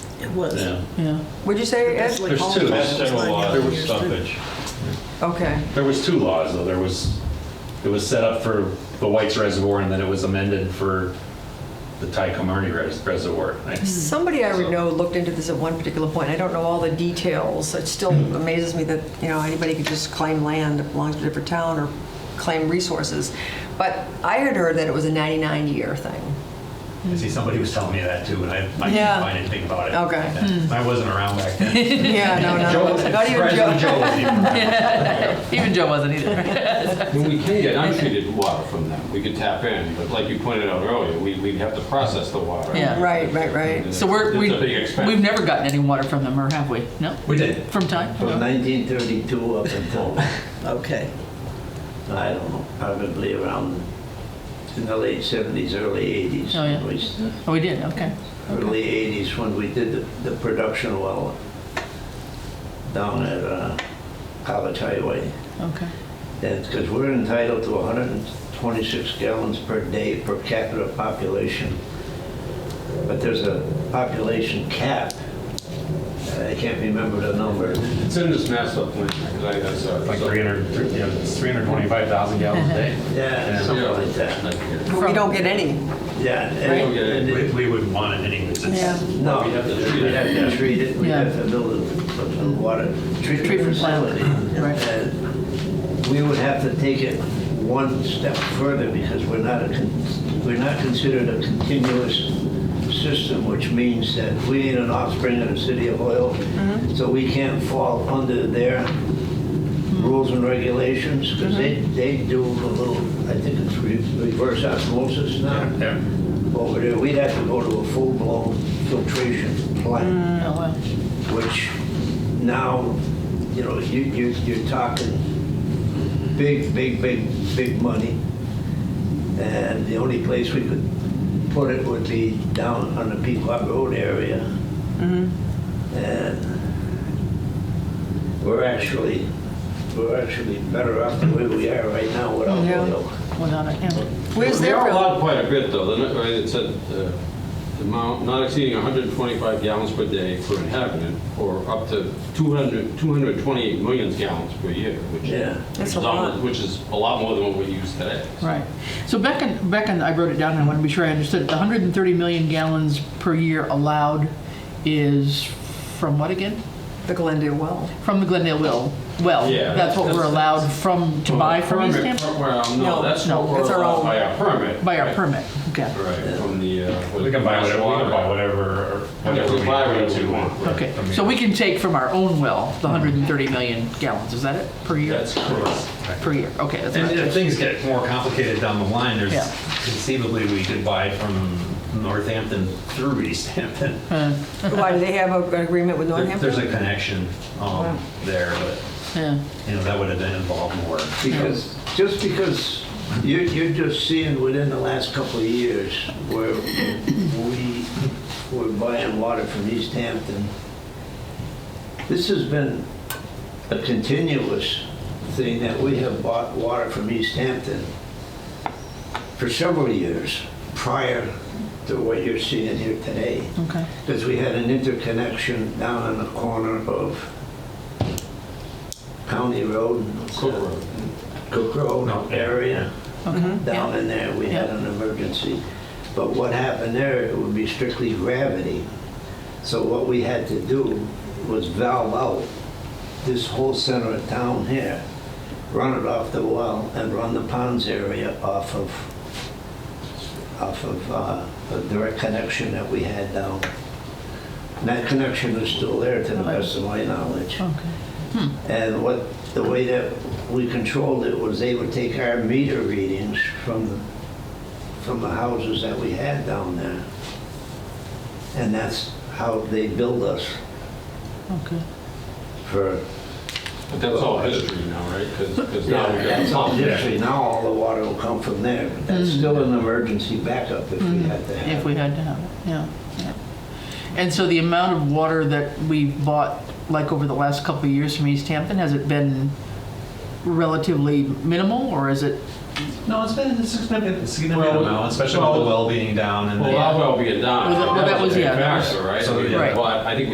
It was. Yeah. yeah. Would you say, Ed? That's like There's all two. the That's time. general law There of was- stoppage. Okay, There was two laws, though. There was, it was set up for the White's Reservoir, and then it was amended for the Tycomarney Res- Reservoir. Mm. I- somebody I would know looked into this at one particular point, I don't know all the details, it still amazes me that, you know, anybody could just claim land that belongs to a different town or claim resources, but I had heard that it was a 99-year thing. I see somebody was telling me that too, and I, I Yeah. didn't find anything about it. Okay. I wasn't around back then. Yeah, no, no, not even President Joe. Joe was even around. Even Joe wasn't either. When we can get untreated water from them, we could tap in, but like you pointed out earlier, we, we'd have to process the water. Yeah. Right, right, right. So we're, we, It's a big we've expense. never gotten any water from them, or have we? No? We did. From time? From 1932 up until, Okay. I don't know, probably around in the late 70s, early 80s. Oh, yeah. We s- Oh, we did, okay. Early 80s when we did the, the production well down at uh, College Highway. Okay. That's because we're entitled to 126 gallons per day per capita population. But there's a population cap. I can't remember the number. It's in this master plan, because I, I saw it. Like So- 300, three- yeah, it's 325,000 gallons a day. Yeah, something Yeah. like that. But We don't get any. Yeah. and- Right. and We, it- we wouldn't want it anyways. Yeah. It's- No, We have to treat it. we have to treat it, we Yeah. have to build a a water treatment Treatment plant. facility. Right. And We would have to take it one step further because we're not, a con- we're not considered a continuous system, which means that we ain't an offspring of the city of Hoyle, Mm-hmm. so we can't fall under their Mm-hmm. rules and regulations because they, they do a little, I think it's re- reverse osmosis now Yeah. over there, we'd have to go to a full-blown filtration plant, Oh, wow. which now, you know, you, you, you're talking big, big, big, big money. And the only place we could put it would be down on the Pequot Road area. And we're actually, we're actually better off the way we are right now without Yeah. oil. Without a, yeah. Where's They their are road? allowed quite a bit, though. They're not- right, It said uh, the amount not exceeding 125 gallons per day per inhabitant, or up to 200, 228 million gallons per year, which Yeah. That's is a lot. almost- which is a lot more than what we use today. Right. So back in, back in, I wrote it down, and I want to be sure I understood. The 130 million gallons per year allowed is from what again? The Glendale well. From the Glendale well. Well, Yeah, that's what that's- we're allowed from, to buy from East Permit, Hampton? Well, No, no, that's no, what we're it's our allowed own- by our permit. By our Right. permit, okay. Right, from the. uh, what- We can buy whatever, we can buy whatever, whatever we buy we need whatever we to. want. Okay, so we can take from our own well the 130 million gallons, is that it, per year? That's correct. Per year, okay, that's And right. if things get more complicated down the line, there's Yeah. conceivably we could buy from Northampton through East Hampton. Why, do they have a- an agreement with There- There's Northampton? a connection um, there, but, Yeah, you know, that would have been involved more. Because, just because you're, you're just seeing within the last couple of years where we were buying water from East Hampton, this has been a continuous thing that we have bought water from East Hampton for several years prior to what you're seeing here today. okay. Because we had an interconnection down on the corner of County Road. Cook Road. Cook Road area. Down Mm-hmm. Yeah. in there, we had Yeah. an emergency. But what happened there, it would be strictly gravity. So what we had to do was valve out this whole center of town here, run it off the well, and run the ponds area off of, off of uh, a direct connection that we had down. And that connection is still there, to the best of my knowledge. Okay. And what, the way that we controlled it was they would take our meter readings from the, from the houses that we had down there. And that's how they billed us Okay. for, But that's all history now, right? Because now we got that's all pump. history. Now all the water will come from there. That's still an emergency backup if we had to Mm. If have. we it. had to have it, yeah. yeah. And so the amount of water that we've bought, like over the last couple of years from East Hampton, has it been relatively minimal, or is it No, it's been a significant, significant Well, amount, especially with the well- well being down and. Well, the- that well be a down. Well, that- well, that was- yeah, that was- Factor, right? So, I mean, Right. But I think